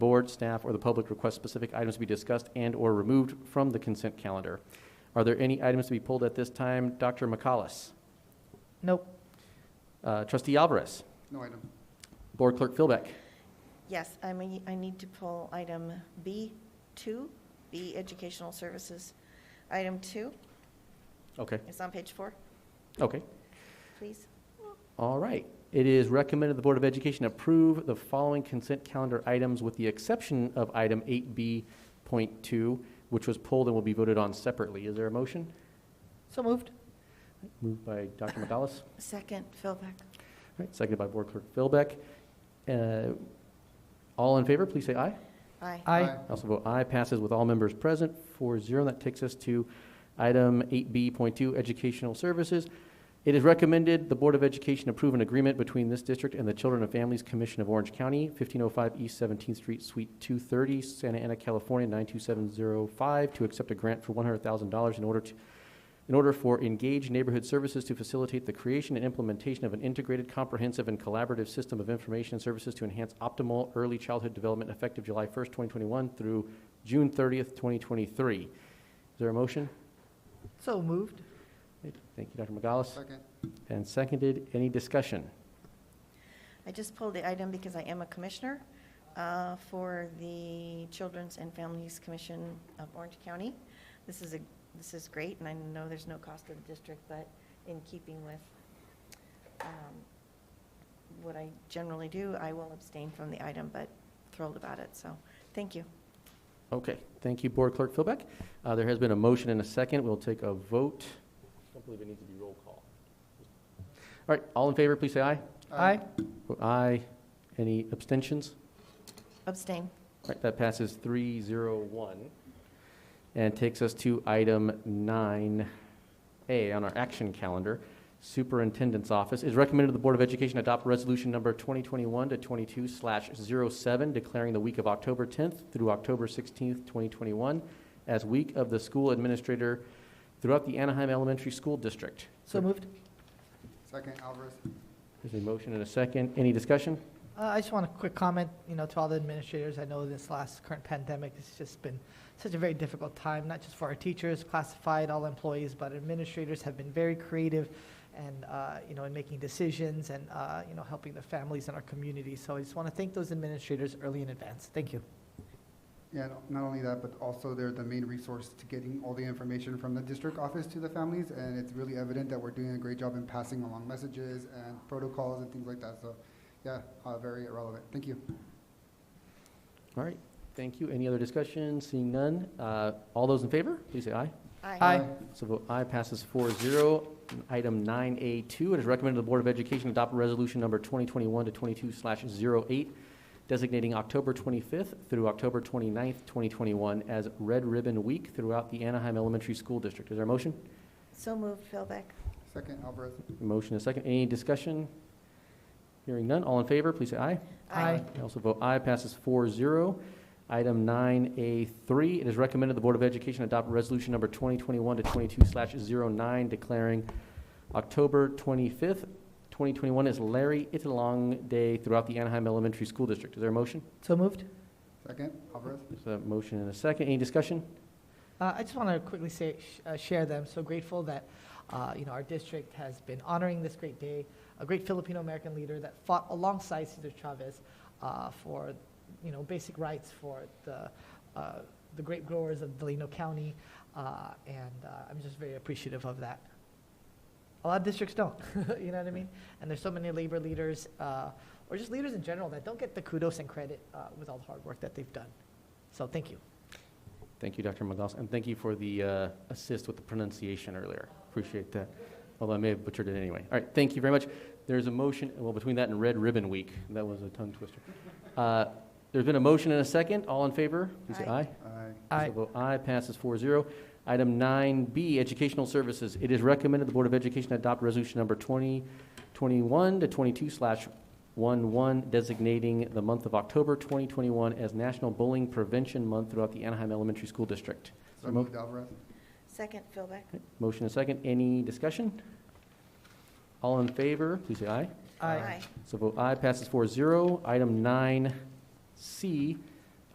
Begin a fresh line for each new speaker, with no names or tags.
board, staff, or the public request specific items to be discussed and/or removed from the consent calendar. Are there any items to be pulled at this time? Dr. McCallus?
Nope.
Uh, Trustee Alvarez?
No item.
Board Clerk Philbeck?
Yes, I mean, I need to pull item B2, B Educational Services. Item 2
Okay,
is on page four,
okay.
please.
All right. It is recommended the Board of Education approve the following consent calendar items with the exception of item 8B.2, which was pulled and will be voted on separately. Is there a motion?
So moved.
Moved by Dr. McAllis. All
Second, Philbeck.
right, seconded by Board Clerk Philbeck. Uh, All in favor, please say aye.
Aye.
Aye.
I also vote aye. Passes with all members present, 4-0. That takes us to item 8B.2, Educational Services. It is recommended the Board of Education approve an agreement between this district and the Children and Families Commission of Orange County, 1505 East 17th Street, Suite 230, Santa Ana, California, 92705, to accept a grant for $100,000 in order to in order for engaged neighborhood services to facilitate the creation and implementation of an integrated, comprehensive, and collaborative system of information and services to enhance optimal early childhood development effective July 1st, 2021 through June 30th, 2023. Is there a motion?
So moved.
Thank you, Dr. McGallis.
Second.
And seconded. Any discussion?
I just pulled the item because I am a commissioner uh, for the Children's and Families Commission of Orange County. This is a, this is great, and I know there's no cost to the district, but in keeping with um, what I generally do, I will abstain from the item, but thrilled about it, so, thank you.
Okay. Thank you, Board Clerk Philbeck. Uh, there has been a motion and a second. We'll take a vote. I don't believe it needs to be roll call. All right. All in favor, please say aye.
Uh,
Vote aye. Any abstentions?
Abstain.
All right, that passes three zero one, and takes us to item nine A on our action calendar. Superintendent's Office is recommended the Board of Education adopt Resolution Number twenty twenty-one to twenty-two slash zero seven, declaring the week of October tenth through October sixteenth, twenty twenty-one, as Week of the School Administrator throughout the Anaheim Elementary School District.
So moved.
Second, Alvarez.
There's a motion and a second. Any discussion?
Uh, I just want a quick comment, you know, to all the administrators. I know this last current pandemic has just been such a very difficult time, not just for our teachers, classified, all employees, but administrators have been very creative and, uh, you know, in making decisions and, uh, you know, helping the families in our community. So I just want to thank those administrators early in advance. Thank you.
Yeah, and not only that, but also they're the main resource to getting all the information from the district office to the families. And it's really evident that we're doing a great job in passing along messages and protocols and things like that. So, yeah, uh, very relevant. Thank you.
All right, thank you. Any other discussion? Seeing none, uh, all those in favor, please say aye.
Aye.
So vote aye passes 4-0. Item nine A two, it is recommended the Board of Education adopt resolution number twenty twenty-one to twenty-two slash zero eight, designating October twenty-fifth through October twenty-ninth, twenty twenty-one as Red Ribbon Week throughout the Anaheim Elementary School District. Is there a motion?
So moved, Philbeck.
Second, Alvarez.
Motion is second. Any discussion? Hearing none. All in favor, please say aye.
Aye.
I also vote aye, passes 4-0. Item nine A three, it is recommended the Board of Education adopt resolution number twenty twenty-one to twenty-two slash zero nine declaring October twenty-fifth, twenty twenty-one is Larry Italong Day throughout the Anaheim Elementary School District. Is there a motion?
So moved.
Second, Alvarez.
There's a motion and a second. Any discussion?
Uh, I just want to quickly say, sh- uh, share that I'm so grateful that, uh, you know, our district has been honoring this great day, a great Filipino-American leader that fought alongside Cesar Chavez uh, for, you know, basic rights for the, uh, the grape growers of Delano County, uh, and uh, I'm just very appreciative of that. A lot of districts don't, you know what I mean? And there's so many labor leaders, uh, or just leaders in general, that don't get the kudos and credit uh, with all the hard work that they've done. So thank you.
Thank you, Dr. McGoss, and thank you for the uh, assist with the pronunciation earlier. Appreciate that, although I may have butchered it anyway. All right, thank you very much. There's a motion, well, between that and Red Ribbon Week, that was a tongue twister. Uh, There's been a motion and a second. All in favor, please say aye.
Aye.
Aye.
Aye.
So vote aye, passes 4-0. Item nine B, Educational Services. It is recommended the Board of Education adopt resolution number twenty twenty-one to twenty-two slash one-one, designating the month of October twenty twenty-one as National Bullying Prevention Month throughout the Anaheim Elementary School District.
So moved, Alvarez.
Second, Philbeck.
Motion and second. Any discussion? All in favor, please say aye.
Aye.
So vote aye passes 4-0. Item nine C